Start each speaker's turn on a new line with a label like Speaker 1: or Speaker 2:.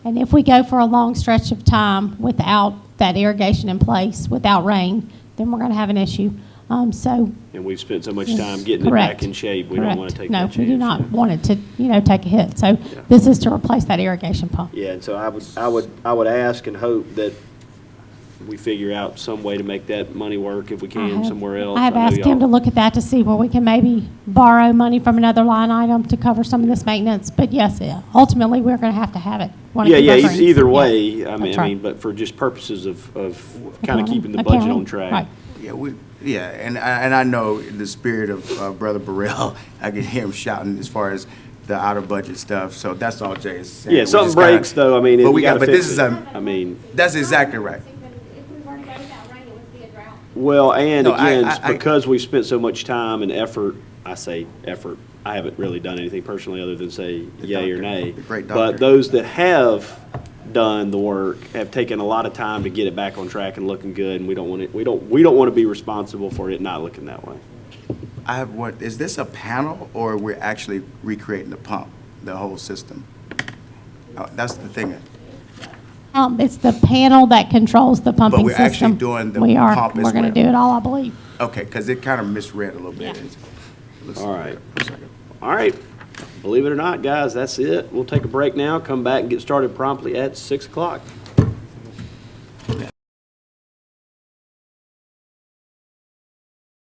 Speaker 1: And if we go for a long stretch of time without that irrigation in place, without rain, then we're going to have an issue. Um, So.
Speaker 2: And we've spent so much
Speaker 1: Yes,
Speaker 2: time getting it back
Speaker 1: correct,
Speaker 2: in shape, we don't want
Speaker 1: correct.
Speaker 2: to take that chance.
Speaker 1: No, we do not
Speaker 2: yeah.
Speaker 1: want it to, you know, take a hit. So this is to replace that irrigation pump.
Speaker 2: Yeah, and so I would, I would, I would ask and hope that we figure out some way to make that money work if we
Speaker 1: I
Speaker 2: can
Speaker 1: have-
Speaker 2: somewhere else.
Speaker 1: I have
Speaker 2: know
Speaker 1: asked him to
Speaker 2: y'all-
Speaker 1: look at that to see where we can maybe borrow money from another line item to cover some of this maintenance. But yes, yeah, ultimately, we're going to have to have it. Wanna
Speaker 2: Yeah,
Speaker 1: keep
Speaker 2: yeah,
Speaker 1: our
Speaker 2: e-
Speaker 1: greens.
Speaker 2: either
Speaker 1: Yeah.
Speaker 2: way, I mean,
Speaker 1: That's
Speaker 2: I
Speaker 1: right.
Speaker 2: mean, but for just purposes of, of kind of
Speaker 1: Accounting,
Speaker 2: keeping the budget on
Speaker 1: accounting,
Speaker 2: track.
Speaker 1: right.
Speaker 3: Yeah, we, yeah, and I, and I know in the spirit of uh, Brother Burrell, I can hear him shouting as far as the out of budget stuff, so that's all Jay is saying.
Speaker 2: Yeah,
Speaker 3: We
Speaker 2: something
Speaker 3: just gotta-
Speaker 2: breaks though, I mean,
Speaker 3: But
Speaker 2: it-
Speaker 3: we
Speaker 2: we
Speaker 3: got,
Speaker 2: gotta
Speaker 3: but this
Speaker 2: fix
Speaker 3: is
Speaker 2: it.
Speaker 3: a,
Speaker 2: I mean,
Speaker 3: that's exactly right.
Speaker 4: If we weren't going that rain, it would be a drought.
Speaker 2: well, and
Speaker 3: No, I-
Speaker 2: again,
Speaker 3: I- I-
Speaker 2: because we've spent so much time and effort, I say effort, I haven't really done anything personally other than say yay or
Speaker 3: doctor,
Speaker 2: nay.
Speaker 3: the great
Speaker 2: But
Speaker 3: doctor.
Speaker 2: those that have done the work have taken a lot of time to get it back on track and looking good, and we don't want it, we don't, we don't want to be responsible for it not looking that way.
Speaker 3: I have one, is this a panel or we're actually recreating the pump, the whole system? Uh, That's the thing.
Speaker 1: Um, It's the panel that controls the pumping
Speaker 3: we're
Speaker 1: system.
Speaker 3: actually doing the
Speaker 1: We are.
Speaker 3: pump as
Speaker 1: We're going
Speaker 3: well.
Speaker 1: to do it all, I believe.
Speaker 3: Okay, because it kind of misread a little bit. It looks-
Speaker 2: All right.
Speaker 3: looks like a-
Speaker 2: All right, believe it or not, guys, that's it. We'll take a break now, come back and get started promptly at six o'clock.